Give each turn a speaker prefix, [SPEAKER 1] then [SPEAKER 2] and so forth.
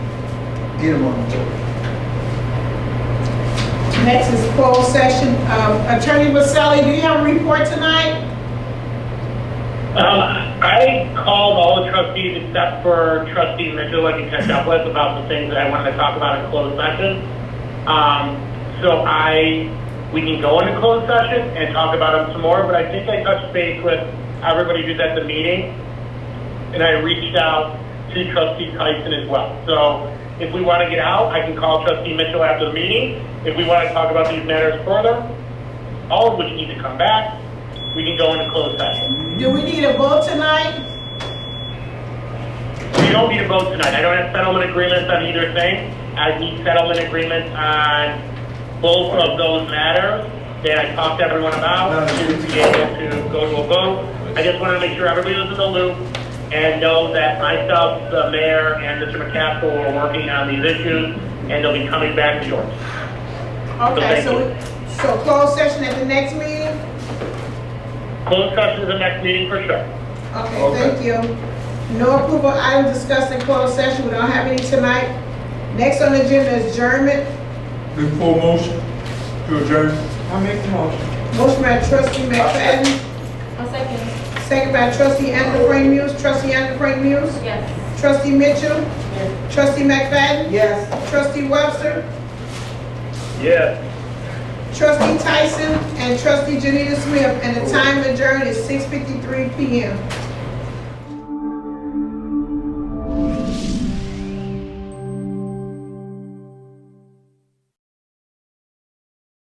[SPEAKER 1] Get him on the board.
[SPEAKER 2] Next is closed session. Um, Attorney Vasselli, do you have a report tonight?
[SPEAKER 3] Um, I called all the trustees except for trustee Mitchell, like you catch up with, about the things that I wanted to talk about in closed session. Um, so I, we can go into closed session and talk about them some more, but I think I touched base with everybody who's at the meeting. And I reached out to trustee Tyson as well. So if we want to get out, I can call trustee Mitchell after the meeting. If we want to talk about these matters further, all of which need to come back, we can go into closed session.
[SPEAKER 2] Do we need a vote tonight?
[SPEAKER 3] We don't need a vote tonight. I don't have settlement agreements on either thing. I need settlement agreements on both of those matters that I talked to everyone about to be able to go to a vote. I just want to make sure everybody is in the loop and know that myself, the mayor, and Mr. McCaskill are working on these issues, and they'll be coming back to yours.
[SPEAKER 2] Okay, so, so closed session at the next meeting?
[SPEAKER 3] Closed session is the next meeting for sure.
[SPEAKER 2] Okay, thank you. No approval item discussed in closed session, we don't have any tonight. Next on the agenda is adjournment.
[SPEAKER 1] Before motion to adjourn.
[SPEAKER 2] Motion by trustee McFadden,
[SPEAKER 4] I'll second.
[SPEAKER 2] second by trustee Andrew Frank Muse, trustee Andrew Frank Muse,
[SPEAKER 4] Yes.
[SPEAKER 2] trustee Mitchell, trustee McFadden,
[SPEAKER 5] Yes.
[SPEAKER 2] trustee Webster,
[SPEAKER 3] Yes.
[SPEAKER 2] trustee Tyson, and trustee Janita Smith, and the time adjourned is six fifty-three PM.